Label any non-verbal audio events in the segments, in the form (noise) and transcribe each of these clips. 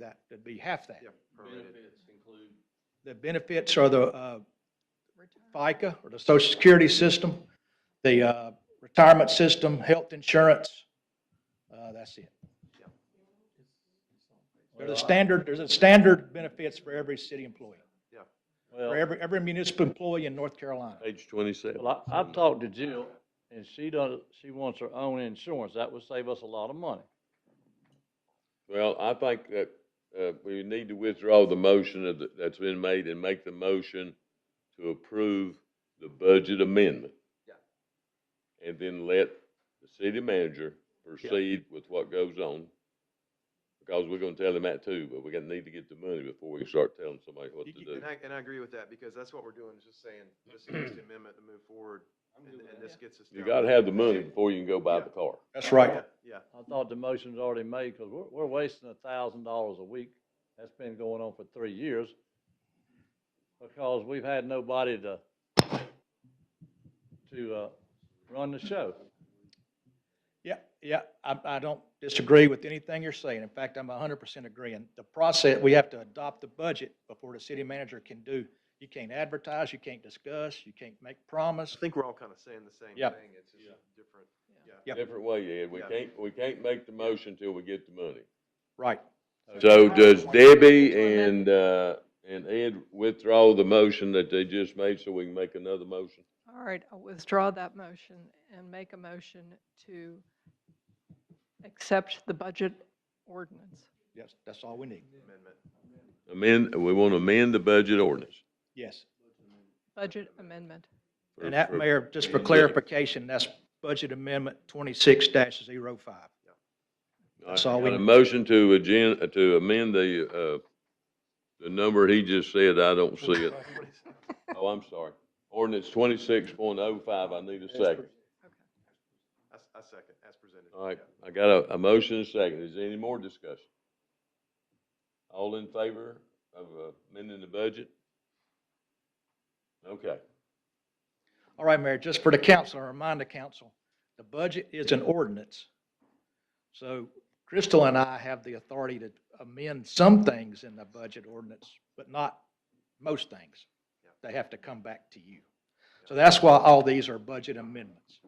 that, it'd be half that. Yeah, prorated. Benefits include, The benefits are the uh, FICA or the social security system, the uh, retirement system, health insurance. Uh, That's it. There's a standard, there's a standard benefits for every city employee, for Well, every, every municipal employee in North Carolina. Page twenty-seven. well, I, I've talked to Jill, and she does, she wants her own insurance, that would save us a lot of money. Well, I think that, uh, we need to withdraw the motion of the- that's been made and make the motion to approve the budget amendment. Yeah. And then let the city manager proceed with what goes on. Because we're gonna tell him that too, but we're gonna need to get the money before we start telling somebody what to You- you- do. And I, and I agree with that, because that's what we're doing, is just (clears throat) saying, this is just an amendment to move forward, I'm and, good with and this that. gets us. You down. gotta have the money before you can go buy the car. That's right. Yeah, Yeah, I thought the motion's already madebecause we're, we're wasting a thousand dollars a week. That's been going on for three years. Because we've had nobody to, to, uh, run the show. Yeah, yeah, I, I don't disagree with anything you're saying. In fact, I'm hundred percent agreeing. The process, we have to adopt the budget before the city manager can do, you can't advertise, you can't discuss, you can't make promise. I think we're all kind of saying the same Yeah. thing, it's just different, yeah. Yep. Different way, Ed. We Yeah. can't, we can't make the motion till we get the money. Right. So does Debbie and, uh, and Ed withdraw the motion that they just made so we can make another motion? All right, I'll withdraw that motion and make a motion to accept the budget ordinance. Yes, that's all we need. Amendment. Amend, we want to amend the budget ordinance. Yes. Budget amendment. for- And that, for- Mayor, just for Yeah. clarification, that's Budget Amendment twenty-six 5 that's all we- Got A motion to agen, to amend the, uh, the number he just said, I don't see it. (laughs) Oh, I'm sorry. Ordinance twenty-six point oh five, I need a second. I, s- I second, as presented. All right, Yeah. I got a, a motion and a second. Is there any more discussion? All in favor of uh, amending the budget? Okay. All right, Mayor, just for the council, I remind the council, the budget is an ordinance. So Crystal and I have the authority to amend some things in the budget ordinance, but not most things. They have to come back to you. So that's why all these are budget amendments.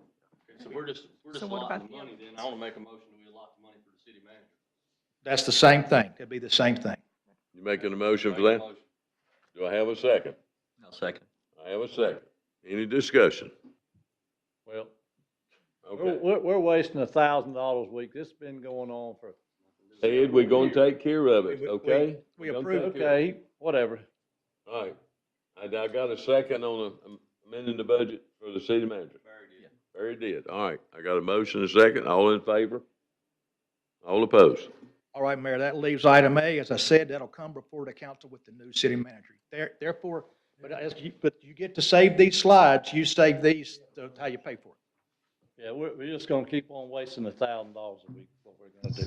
so we're just, we're just So what allotting about the the money then, I wanna make a motion that we allot the money for the city manager. That's the same thing. It'd be the same thing. You making a motion Make for a that? motion. Do I have a second? I'll second. I have a second. Any discussion? Well, we're, Okay. we're, we're wasting a thousand dollars a week, this has been going on for, Ed, we're gonna take care of it, We- we- okay? we We're gonna approve. take care of it. okay, whatever. All right. I, I got a second on the- amending the budget for the city manager. Very good. Very did. All right. I got a motion and a second. All in favor? All opposed? All right, Mayor, that leaves item A. As I said, that'll come before the council with the new city manager. There- Therefore, but as you, but you get to save these slides, you save these, that's how you pay for it. Yeah, we're, we're just gonna keep on wasting a thousand dollars a week, what we're gonna do.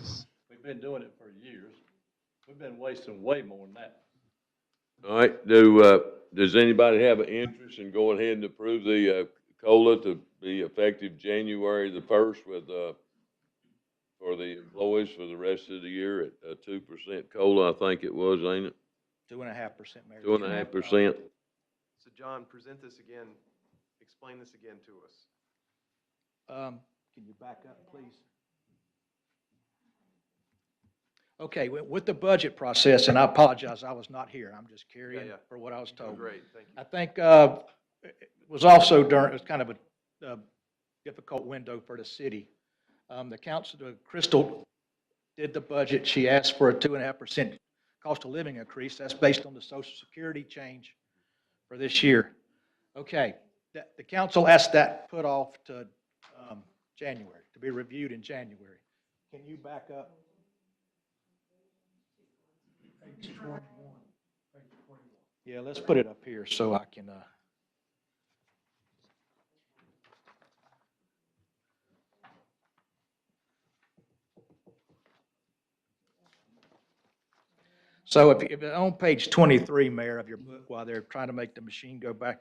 We've been doing it for years. We've been wasting way more than that. All right, do, uh, does anybody have an interest in going ahead and approve the, uh, COLA to be effective January the first with, uh, for the employees for the rest of the year at, uh, two percent COLA, I think it was, ain't it? Two and a half percent, Mayor. Two and a half percent? So John, present this again, explain this again to us. Um, Can you back up, please? Okay, wi- with the budget process, and I apologize, I was not here. I'm just carrying yeah. for what I was Oh, told. Great, thank you. I think uh, it it was also during, it was kind of a uh, difficult window for the city. Um, The council, the Crystal did the budget. She asked for a two and a half percent cost of living increase. That's based on the social security change for this year. Okay, that- the council asked that put off to um, January, to be reviewed in January. Can you back up? Yeah, let's put it up here so I can, uh. So if, if, on page twenty-three, Mayor, of your book, while they're trying to make the machine go back,